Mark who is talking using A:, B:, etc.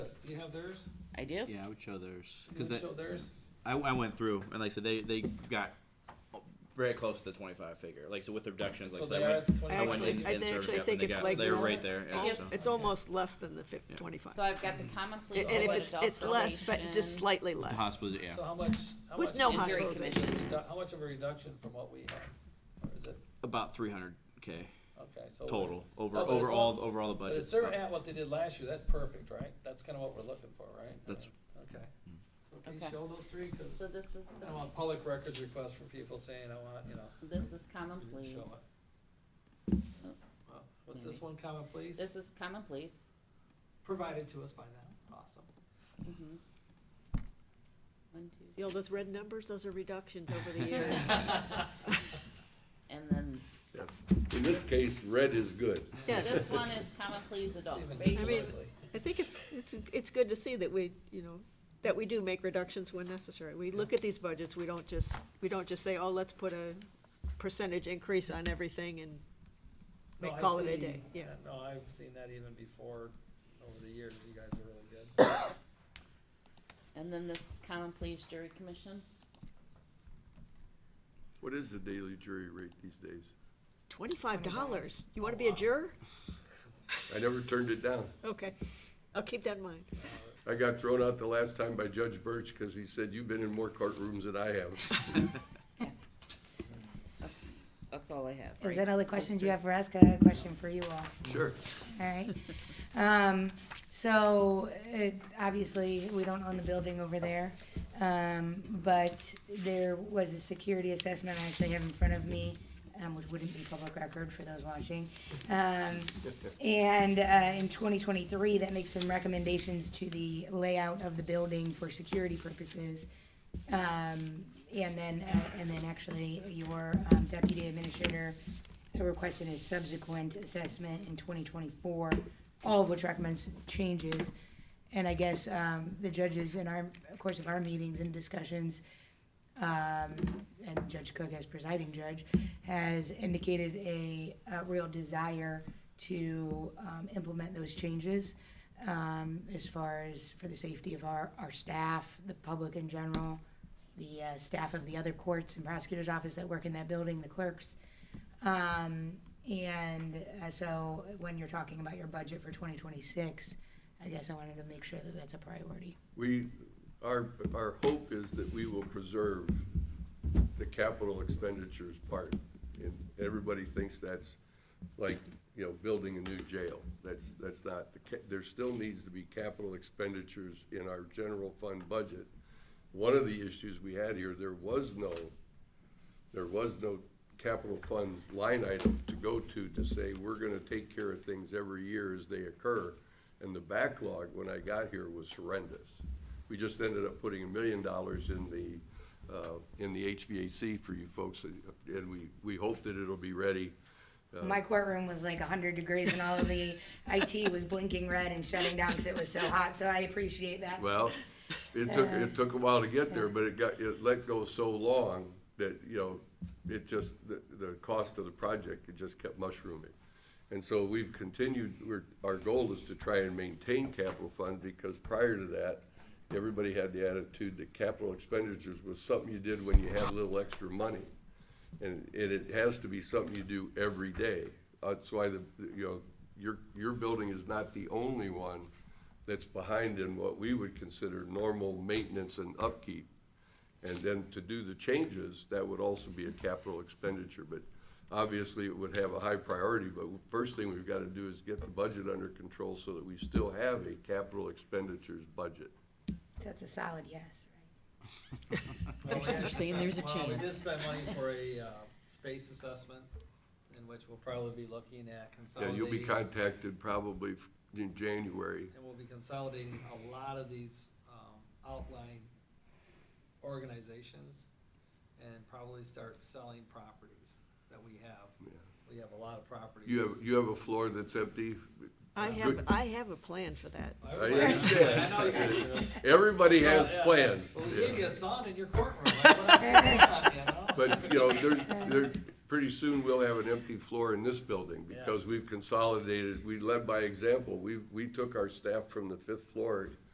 A: have theirs?
B: I do.
C: Yeah, I would show theirs.
A: You
C: Cause
A: would
C: that,
A: show theirs?
C: I, I went through and like I said, they, they got very close to the twenty-five figure, like, so with the reductions, like,
A: So
C: so I
A: they are at
C: went,
A: the
C: I went
A: twenty-five.
D: Actually-
C: in,
D: I
C: in
D: think-
C: Surf
D: actually
C: Def and
D: think
C: they
D: it's
C: got,
D: like
C: they were
D: more-
C: right there, yeah,
D: Al-
C: so.
D: It's almost less than the fif-
C: Yeah.
D: twenty-five.
B: So I've got the common
D: And
B: police.
D: and if
B: adult
D: it's, it's less, but just
B: probation,
D: slightly
C: The
D: less.
C: hospitals, yeah.
A: So how much, how
D: With
A: much?
D: no
A: is it-
B: Injury
D: hospitalization.
B: commission.
A: redu- How much of a reduction from what we have? Or is it,
C: About three hundred K
A: okay, so.
C: total, over,
A: No, but Oh, it's all-
C: overall, overall the
A: But
C: budget.
A: if they're at what they did last year, that's perfect, right? That's kinda what we're looking for, right?
C: That's-
A: Okay. So can you
B: Okay.
A: show those three? Cause
B: So this is,
A: I don't want public records requests from people saying, I want, you know,
B: the- this is common
A: You can
B: police.
A: show well, what's this
B: Maybe.
A: one comment, please?
B: This is common police.
A: Provided to us by now, awesome.
B: Mhm. One, two,
D: You know, those red numbers, those are reductions over the years.
B: and then
E: In this case, red is good.
D: Yeah,
B: this one is common police
A: It's
B: adult
A: even
D: I
B: probation.
D: mean-
A: ugly.
D: I think it's, it's, it's good to see that we, you know, that we do make reductions when necessary. We look at these budgets, we don't just, we don't just say, oh, let's put a percentage increase on everything and
A: No,
D: make-
A: I
D: call it a
A: see-
D: day, yeah.
A: No, I've seen that even before, over the years, you guys are really good.
B: And then this is common police jury commission.
E: What is the daily jury rate these days?
D: twenty-five Oh, dollars. You wanna be a juror?
E: I never turned it down.
D: Okay, I'll keep that in mind.
E: I got thrown out the last time by Judge Birch because he said, you've been in more courtrooms than I have.
B: That's, that's all I have.
F: Is
B: right?
F: that all the
B: Those
F: questions you
B: three.
F: have for us? 'Cause I have a question for you all.
E: Sure.
F: All right. Um, so, it, obviously, we don't own the building over there. Um, but there was a security assessment I actually have in front of me, um, which wouldn't be public record for those watching. Um, and, uh, in twenty twenty-three, that makes some recommendations to the layout of the building for security purposes. Um, and then, uh, and then actually your um, deputy administrator requested a subsequent assessment in twenty twenty-four, all of which recommends changes. And I guess, um, the judges in our, of course, of our meetings and discussions, um, and Judge Cook as presiding judge, has indicated a, a real desire to, um, implement those changes, um, as far as for the safety of our, our staff, the public in general, the, uh, staff of the other courts and prosecutor's office that work in that building, the clerks. Um, and, uh, so when you're talking about your budget for twenty twenty-six, I guess I wanted to make sure that that's a priority.
E: We, our, our hope is that we will preserve the capital expenditures part. And everybody thinks that's like, you know, building a new jail. That's, that's not, the ca- there still needs to be capital expenditures in our general fund budget. One of the issues we had here, there was no, there was no capital funds line item to go to to say, we're gonna take care of things every year as they occur. And the backlog, when I got here, was horrendous. We just ended up putting a million dollars in the, uh, in the HVAC for you folks, and we, we hope that it'll be ready. uh,
F: My courtroom was like 100 degrees, and all of the IT was blinking red and shutting down because it was so hot. So I appreciate that.
E: Well, it took, it took a while to get there, but it got, it let go so long that, you know, it just, the, the cost of the project, it just kept mushrooming. And so we've continued, we're, our goal is to try and maintain capital fund, because prior to that, everybody had the attitude that capital expenditures was something you did when you had a little extra money. And, and it has to be something you do every day. Uh, That's why the, you know, your, your building is not the only one that's behind in what we would consider normal maintenance and upkeep. And then to do the changes, that would also be a capital expenditure, but obviously it would have a high priority. But first thing we've gotta do is get the budget under control so that we still have a capital expenditures budget.
F: That's a solid yes.
A: Well, we
G: saying
A: did
G: there's a
A: spend- well, We did
G: chance.
A: spend money for a, uh, space assessment, in which we'll probably be looking at
E: Yeah,
A: consolidating.
E: you'll be contacted probably in January.
A: And we'll be consolidating a lot of these, um, outlying organizations, and probably start selling properties that we have.
E: Yeah.
A: We have a lot of properties.
E: You have, you have a floor that's empty.
D: I have, I have a plan for that.
A: I
E: understand.
A: know you guys do.
E: Everybody has
A: Yeah, yeah.
E: plans.
A: Well, we
E: yeah.
A: gave you a song in your courtroom, like, what else is going on, you know?
E: But, you know, there, there, pretty soon we'll have an empty floor in this building
A: Yeah.
E: because we've consolidated, we led by example. We, we took our staff from the fifth floor